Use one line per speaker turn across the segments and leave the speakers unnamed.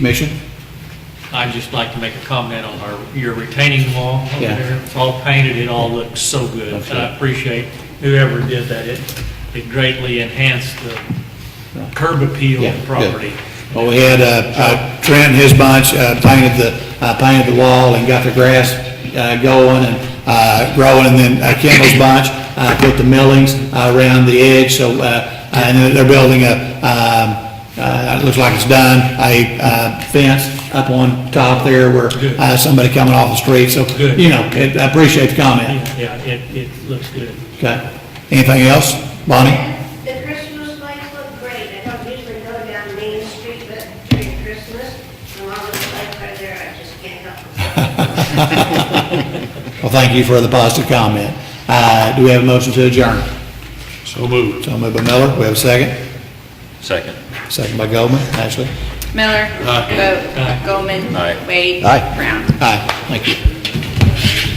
Commission?
I'd just like to make a comment on our, your retaining wall over
Yeah.
there. It's all painted, it all looks so good. And I appreciate whoever did that. It, it greatly enhanced the curb appeal
Yeah,
of the property.
good. Well, we had, uh, uh, Trent and his bunch, uh, painted the, uh, painted the wall and got the grass, uh, going and, uh, growing, and then uh, Kimball's bunch, uh, put the millings uh, around the edge, so, uh, and they're- they're building a, um, uh, it looks like it's done, a, uh, fence up on top there where,
Good.
uh, somebody coming off the street, so,
Good.
you know, it- I appreciate the comment.
Yeah, it, it looks good.
Okay. Anything else? Bonnie?
The Christmas lights look great. I don't usually go down Main Street, but during Christmas, the longest light right there, I just can't help it.
Well, thank you for the positive comment. Uh, Do we have a motion to adjourn? So moved. So moved by Miller, we have a second?
Second.
Second by Goldman, Ashley?
Miller. Vote.
Aye.
Goldman.
Aye.
Wade.
Aye.
Brown.
Aye, thank you.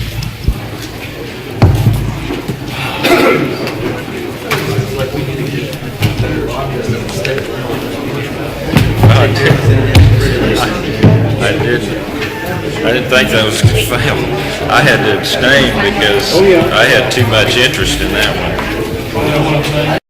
I didn't, I didn't think that was found. I
Oh,
had to abstain because I had too much interest in that one.